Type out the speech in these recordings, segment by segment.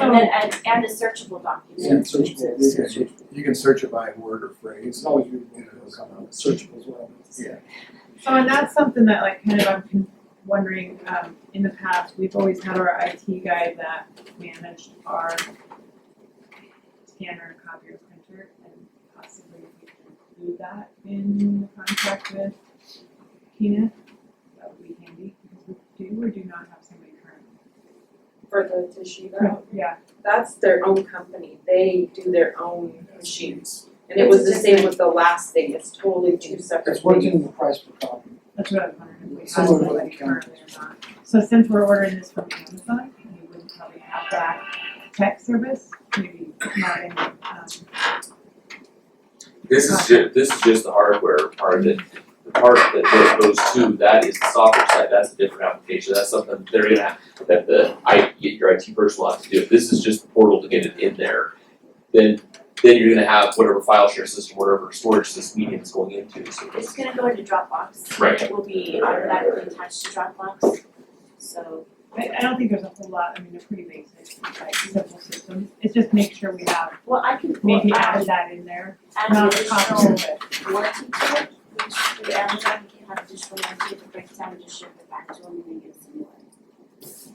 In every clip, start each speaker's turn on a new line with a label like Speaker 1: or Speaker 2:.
Speaker 1: And then add, add the searchable document.
Speaker 2: Yeah, Oh,
Speaker 3: searchable,
Speaker 2: searchable,
Speaker 3: you can-
Speaker 2: searchable.
Speaker 3: You can search it by word or phrase.
Speaker 2: It's always useful,
Speaker 3: You know, it'll come out.
Speaker 2: searchable as well.
Speaker 3: Yeah.
Speaker 4: So and that's something that like kind of I'm con- wondering, um, in the past, we've always had our IT guy that managed our scanner, copier, printer, and possibly we can include that in the contract with Kina. That would be handy, because we do or do not have somebody currently.
Speaker 5: for the Toshiba.
Speaker 4: Yeah,
Speaker 5: That's their own company, they do their own machines. And it was the same with the last thing, it's totally two separate
Speaker 2: It's working
Speaker 5: things.
Speaker 2: in the price per copy.
Speaker 4: that's what I was wondering, if we have
Speaker 2: Similar to
Speaker 4: somebody
Speaker 2: the
Speaker 4: currently or not. So since we're ordering this from Amazon, we would probably have that tech service, maybe not in, um,
Speaker 6: This is ju- this is just the hardware part that, the part that goes goes to, that is the software side, that's a different application, that's something they're gonna have, that the I, your IT person will have to do, if this is just the portal to get it in there, then then you're gonna have whatever file share system, whatever storage this medium is going into, so
Speaker 1: It's gonna go into Dropbox.
Speaker 6: Right.
Speaker 1: It will be automatically attached to Dropbox, so.
Speaker 4: I, I don't think there's a whole lot, I mean, they're pretty basic, like simple systems, it's just make sure we have,
Speaker 1: Well, I can well,
Speaker 4: maybe add
Speaker 1: add,
Speaker 4: that in there,
Speaker 1: add an
Speaker 4: not a copy
Speaker 1: additional
Speaker 4: of it.
Speaker 1: warranty to it, which through Amazon, you can have additional warranty, if it breaks down, just ship it back to them and they get us a new one.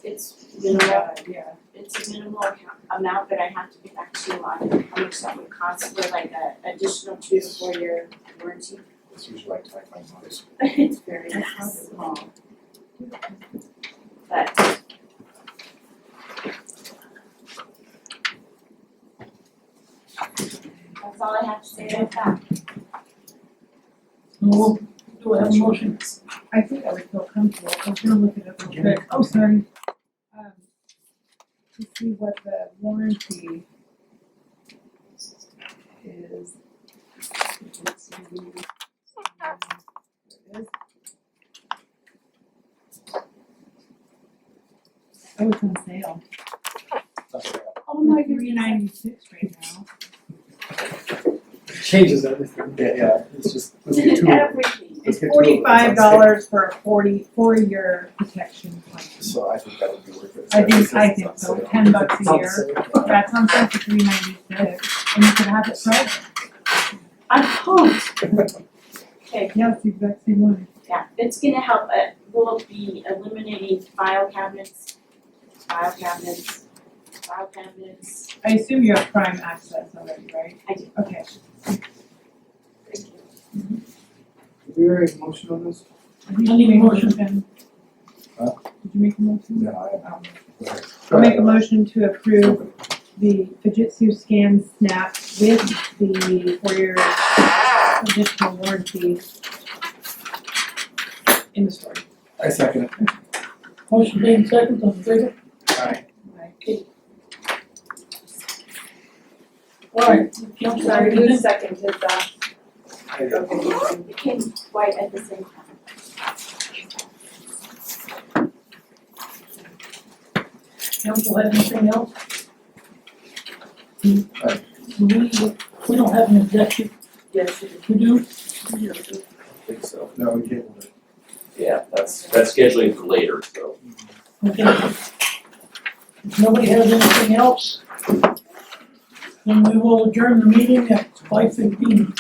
Speaker 1: It's minimal,
Speaker 4: Yeah, yeah,
Speaker 1: it's a minimal account, amount, but I have to get back to you on how much that would cost for like a additional two to four year warranty.
Speaker 3: It's usually like type by size.
Speaker 1: It's very small. But that's all I have to say about that.
Speaker 4: Well,
Speaker 2: do I have a motion?
Speaker 4: I think I would feel comfortable, I'm gonna look it up real quick, oh, sorry. Um, to see what the warranty is. Let's see. There it is. Oh, it's on sale.
Speaker 3: That's right.
Speaker 1: Oh
Speaker 4: my, three ninety-six right now.
Speaker 2: Changes everything.
Speaker 3: Yeah, yeah, it's just, let's get to it.
Speaker 1: Everything.
Speaker 3: Let's
Speaker 4: It's
Speaker 3: get to it.
Speaker 4: forty-five dollars for a forty, four-year protection plan.
Speaker 3: So I think that would be worth it.
Speaker 4: I think, I
Speaker 3: It's on
Speaker 4: think so,
Speaker 3: sale.
Speaker 4: ten bucks
Speaker 2: It's
Speaker 4: a
Speaker 2: on
Speaker 4: year,
Speaker 2: sale.
Speaker 4: that's on sale for three ninety-six, and you can have it private,
Speaker 1: I'm pumped. Okay,
Speaker 4: yeah, it's the exact same one.
Speaker 1: yeah, it's gonna help, uh, we'll be eliminating file cabinets, file cabinets, file cabinets.
Speaker 4: I assume you have prime access already, right?
Speaker 1: I do.
Speaker 4: Okay,
Speaker 1: Thank you.
Speaker 2: We already have a motion on this?
Speaker 4: did you make a motion?
Speaker 3: Huh?
Speaker 4: Did you make a motion?
Speaker 3: No, I
Speaker 4: Um,
Speaker 3: haven't.
Speaker 4: I'll make a motion to approve the Fujitsu Scan Snap with the four-year additional warranty in the store.
Speaker 3: I second it.
Speaker 7: Motion made in second, on favor?
Speaker 3: Alright.
Speaker 7: Alright, council,
Speaker 5: Sorry, who seconded that?
Speaker 1: It became white at the same time.
Speaker 7: council have anything else?
Speaker 3: Aye.
Speaker 7: We, we don't have an executive,
Speaker 5: Yes, it is.
Speaker 7: we do,
Speaker 6: I think so.
Speaker 3: No, we tabled it.
Speaker 6: Yeah, that's that's scheduling for later, so.
Speaker 7: okay. If nobody has anything else, then we will adjourn the meeting at five fifteen.